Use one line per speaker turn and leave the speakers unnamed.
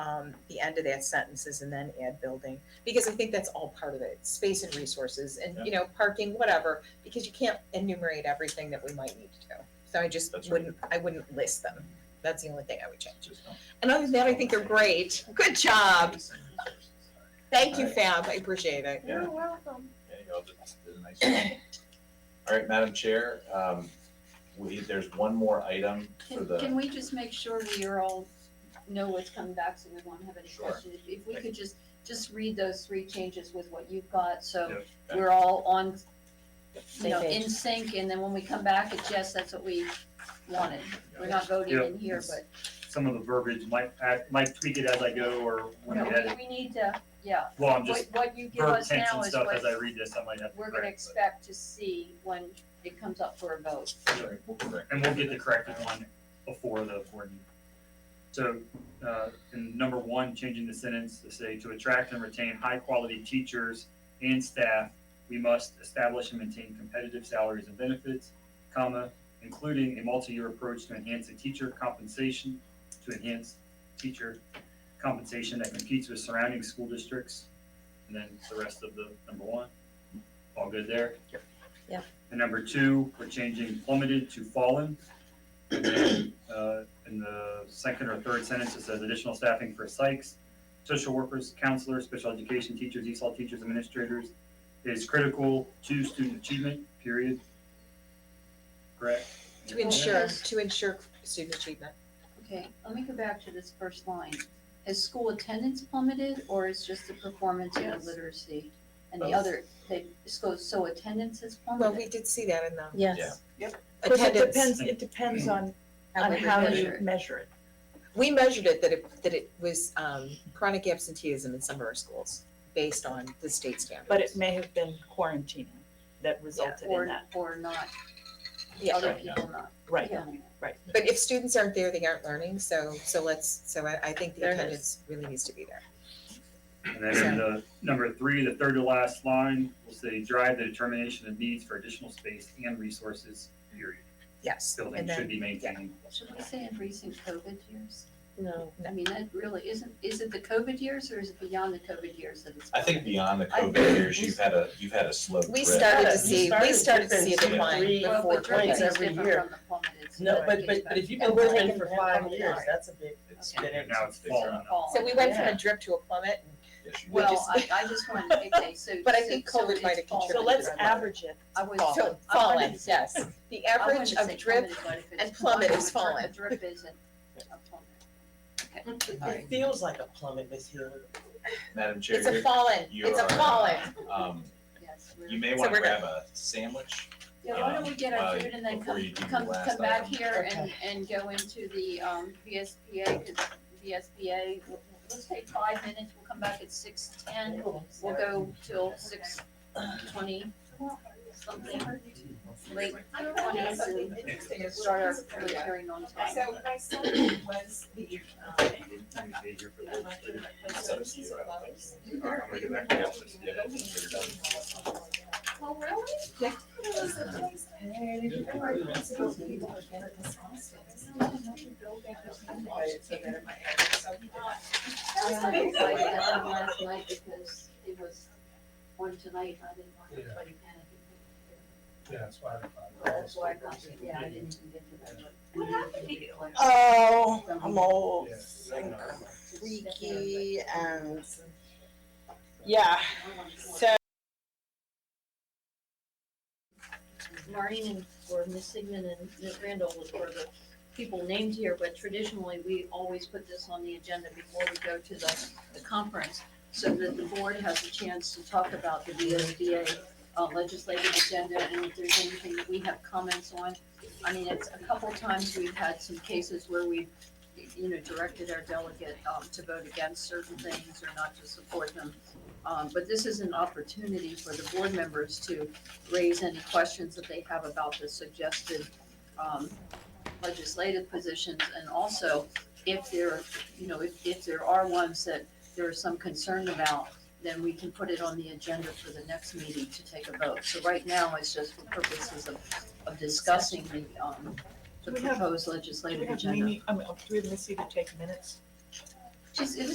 um, the end of that sentences and then add building, because I think that's all part of it, space and resources and, you know, parking, whatever, because you can't enumerate everything that we might need to do. So I just
That's right.
wouldn't, I wouldn't list them. That's the only thing I would change.
Just don't-
And other than that, I think
Oh,
they're great. Good job.
Just send resources.
Thank you, Fab. I appreciate it.
Yeah.
welcome.
There you go, that's, that's a nice one. All right, Madam Chair, um, we, there's one more item for
Can,
the,
can we just make sure we are all, know what's coming back, so we won't have any
Sure.
questions? If- If we could just, just read those three changes with what you've got, so
Yep.
we're all on, you
Same
know,
page.
in sync, and then when we come back, it's just, that's what we wanted. We're not voting in
Yeah.
here, but,
some of the verbiage might add, might tweak it as I go or when
no,
I edit.
we, we need to, yeah,
Well, I'm
what,
just
what you give
verb
us
tense
now
and
is
stuff as I
what
read this, I might have to
we're gonna
correct.
expect to see when it comes up for a vote.
Sorry, we'll correct.
but- And we'll get the corrected one before the board meeting. So, uh, in number one, changing the sentence to say, to attract and retain high-quality teachers and staff, we must establish and maintain competitive salaries and benefits, comma, including a multi-year approach to enhance the teacher compensation, to enhance teacher compensation that competes with surrounding school districts, and then the rest of the number one. All good there?
Yep. Yep.
And number two, we're changing plummeted to fallen. And then, uh, in the second or third sentence, it says additional staffing for psychs, social workers, counselors, special education teachers, ESOL teachers, administrators is critical to student achievement, period. Correct?
To ensure,
Yes.
to ensure student achievement.
Okay, let me go back to this first line. Has school attendance plummeted or is just the performance and
Yes.
literacy? And the
Both.
other, they, so, so attendance has
Well, we
plummeted?
did see that in the
Yeah.
Yes, but it
attendance.
depends, it depends on, on
we
how
measure
you
it.
measure it.
We measured it that it, that it was um, chronic absenteeism in some of our schools based on the state standards.
But it may have been quarantining that resulted in
Or,
that,
or not,
Yeah.
other
Right, yeah.
people not,
right?
yeah.
But if students aren't there, they aren't learning, so, so let's, so I, I think the
There it is.
attendance really needs to be there.
And then in the number three, the third to last line, we'll say drive the determination of needs for additional space and resources, period.
Yes,
Building
and
should
then,
be maintained.
Should we say in recent COVID years?
No.
I mean, that really isn't, is it the COVID years or is it beyond the COVID years that it's?
I think
plummeted?
beyond the
I-
COVID years, you've had a, you've had a slow
we
drip.
started to
Yeah, you
see, we
started
started to see a
difference in
decline.
three-
before
Well, but
COVID.
points
dripping is
every
different
year.
from the plummeted, so
No,
that
but,
gets
but,
back
but if you've
to
been working
plummeted.
for
Taking
five
them
years,
apart.
that's a big,
It's-
And
Okay.
it now it's
it's bigger.
fallen.
Fall.
So we went from
Yeah.
a drip to a plummet,
Yes, you
Well,
did.
Well, I, I just wanted, okay, so.
But I
so-
think
so
COVID
it's
might have
fallen.
So let's average it.
I was.
Fall.
so
I wanted
fallen,
to say-
yes. The
I wanted
average
to say
of drip,
plummeted, but if it's
and plummet
plummeted,
is
a drip-
fallen.
A drip isn't a plummet.
Alright.
it feels like a plummet, Miss Hill.
Madam Chair,
it's a
you're-
fallen,
you
it's a
are-
fallen.
um,
Yes,
you
we're,
may
So
wanna
we're good.
grab a sandwich.
yeah, why don't we get our
Um,
food and then
before you
come,
do your
come,
last
come back
item.
here and,
Okay.
and go into the, um, VSBA, cause VSBA, we'll- let's take five minutes, we'll come back at six ten. We'll go till six twenty something, late twenties and start our public hearing on time.
So my son was the, um,
Maybe stay here for
um,
the-
It's up to you, I don't think.
I'm gonna get back to the office. Yeah, that's what we're done.
Oh,
well, really? Yeah. It was a place, and if you were those people who get it this house, it's not another building, there's nothing I should take out of my area, so he thought,
I
"That's
had to
amazing."
fight that one last night because it was on tonight, I didn't want anybody panicking.
Yeah, that's why. I-
That's why I got, yeah, I didn't get to that. What happened to you?
Oh, I'm old
Yeah.
and creaky and, yeah, so.
Marine and, or Miss Sigmund and Miss Randall were the people named here, but traditionally, we always put this on the agenda before we go to the, the conference, so that the board has a chance to talk about the VSBA uh, legislative agenda, and if there's anything that we have comments on. I mean, it's a couple times we've had some cases where we've, you know, directed our delegate, um, to vote against certain things or not to support them. Um, but this is an opportunity for the board members to raise any questions that they have about the suggested um, legislative positions. And also, if there, you know, if, if there are ones that there is some concern about, then we can put it on the agenda for the next meeting to take a vote. So right now, it's just for purposes of, of discussing the, um, the
Do we have-
proposed
Do we
legislative
have
agenda.
Mimi, I mean, do we have Missy to take minutes?
She's, it was